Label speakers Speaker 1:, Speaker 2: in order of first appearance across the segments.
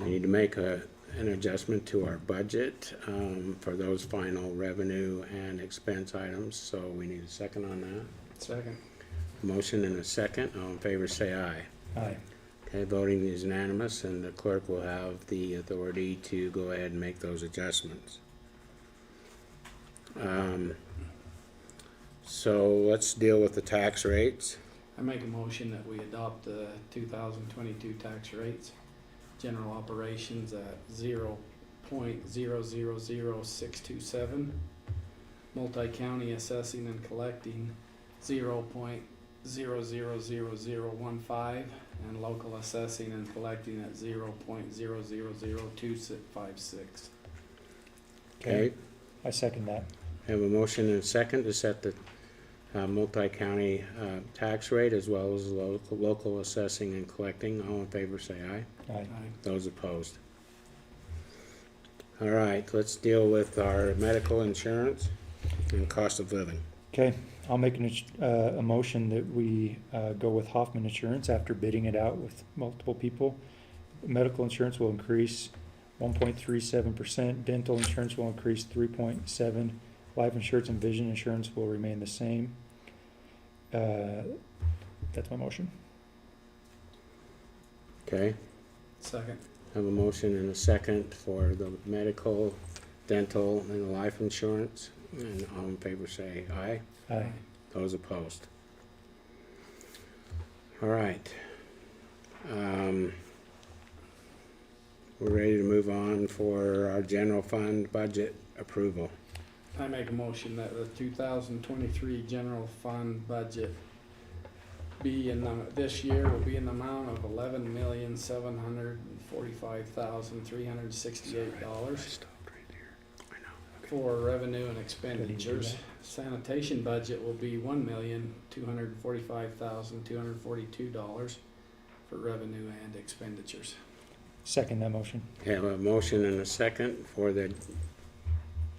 Speaker 1: We need to make a, an adjustment to our budget, um, for those final revenue and expense items, so we need a second on that.
Speaker 2: Second.
Speaker 1: Motion and a second, all in favor say aye.
Speaker 2: Aye.
Speaker 1: Okay, voting is unanimous, and the clerk will have the authority to go ahead and make those adjustments. Um, So let's deal with the tax rates.
Speaker 2: I make a motion that we adopt the two thousand twenty-two tax rates, general operations at zero point zero zero zero six two seven, multi-county assessing and collecting zero point zero zero zero zero one five, and local assessing and collecting at zero point zero zero zero two six five six.
Speaker 1: Okay,
Speaker 3: I second that.
Speaker 1: have a motion and a second to set the uh, multi-county uh, tax rate as well as local local assessing and collecting. All in favor, say aye.
Speaker 3: Aye.
Speaker 1: Those opposed? All right, let's deal with our medical insurance and cost of living.
Speaker 3: Okay, I'll make an, ins- uh, a motion that we, uh, go with Hoffman Insurance after bidding it out with multiple people. Medical insurance will increase one point three seven percent, dental insurance will increase three point seven, life insurance and vision insurance will remain the same. Uh, that's my motion.
Speaker 1: Okay,
Speaker 2: Second.
Speaker 1: have a motion and a second for the medical, dental, and life insurance. And all in favor say aye.
Speaker 3: Aye.
Speaker 1: Those opposed? All right. Um, We're ready to move on for our general fund budget approval.
Speaker 2: I make a motion that the two thousand twenty-three general fund budget be in the, this year will be in the amount of eleven million, seven hundred and forty-five thousand, three hundred and sixty-eight dollars for revenue and expenditures. Sanitation budget will be one million, two hundred and forty-five thousand, two hundred and forty-two dollars for revenue and expenditures.
Speaker 3: Second that motion.
Speaker 1: Have a motion and a second for the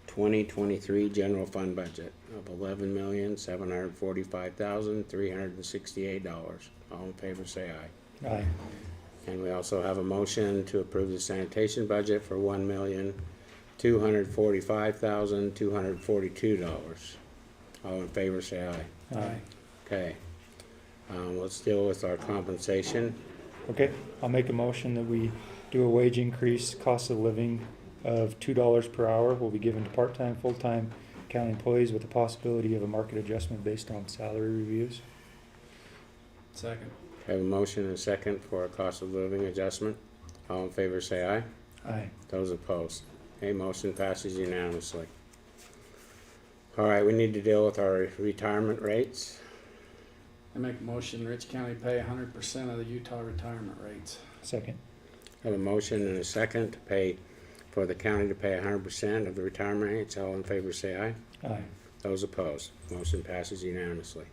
Speaker 1: twenty twenty-three general fund budget of eleven million, seven hundred forty-five thousand, three hundred and sixty-eight dollars. All in favor, say aye.
Speaker 3: Aye.
Speaker 1: And we also have a motion to approve the sanitation budget for one million, two hundred forty-five thousand, two hundred forty-two dollars. All in favor, say aye.
Speaker 3: Aye.
Speaker 1: Okay. Um, let's deal with our compensation.
Speaker 3: Okay, I'll make a motion that we do a wage increase, cost of living of two dollars per hour will be given to part-time, full-time county employees with the possibility of a market adjustment based on salary reviews.
Speaker 2: Second.
Speaker 1: Have a motion and a second for a cost of living adjustment. All in favor, say aye.
Speaker 3: Aye.
Speaker 1: Those opposed? Okay, motion passes unanimously. All right, we need to deal with our retirement rates.
Speaker 2: I make a motion, Rich County pay hundred percent of the Utah retirement rates.
Speaker 3: Second.
Speaker 1: Have a motion and a second to pay, for the county to pay hundred percent of the retirement rates. All in favor, say aye.
Speaker 3: Aye.
Speaker 1: Those opposed? Motion passes unanimously.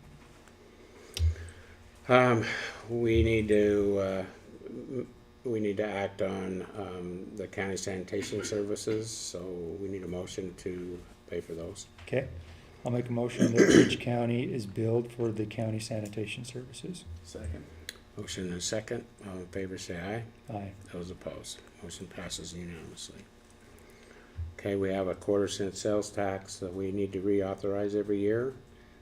Speaker 1: Um, we need to, uh, m- we need to act on, um, the county sanitation services, so we need a motion to pay for those.
Speaker 3: Okay, I'll make a motion that Ridge County is billed for the county sanitation services.
Speaker 2: Second.
Speaker 1: Motion and a second. All in favor, say aye.
Speaker 3: Aye.
Speaker 1: Those opposed, motion passes unanimously. Okay, we have a quarter cent sales tax that we need to reauthorize every year.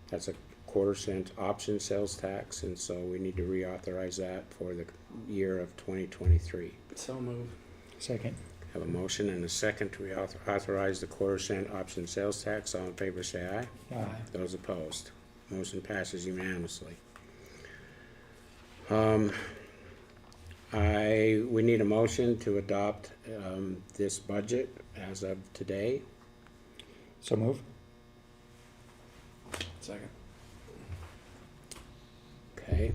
Speaker 1: That's a quarter cent option sales tax, and so we need to reauthorize that for the year of twenty twenty-three.
Speaker 2: So move.
Speaker 3: Second.
Speaker 1: Have a motion and a second to reauthorize the quarter cent option sales tax. All in favor, say aye.
Speaker 3: Aye.
Speaker 1: Those opposed, motion passes unanimously. Um, I, we need a motion to adopt, um, this budget as of today.
Speaker 3: So move.
Speaker 2: Second.
Speaker 1: Okay,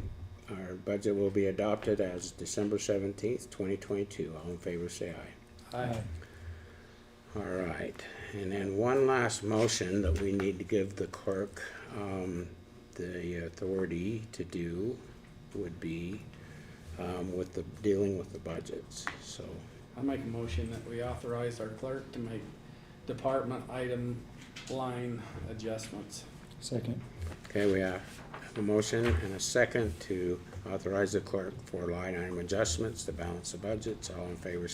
Speaker 1: our budget will be adopted as December seventeenth, twenty twenty-two. All in favor, say aye.
Speaker 2: Aye.
Speaker 1: All right, and then one last motion that we need to give the clerk, um, the authority to do would be, um, with the, dealing with the budgets, so.
Speaker 2: I make a motion that we authorize our clerk to make department item line adjustments.
Speaker 3: Second.
Speaker 1: Okay, we have a motion and a second to authorize the clerk for line item adjustments to balance the budgets. All in favor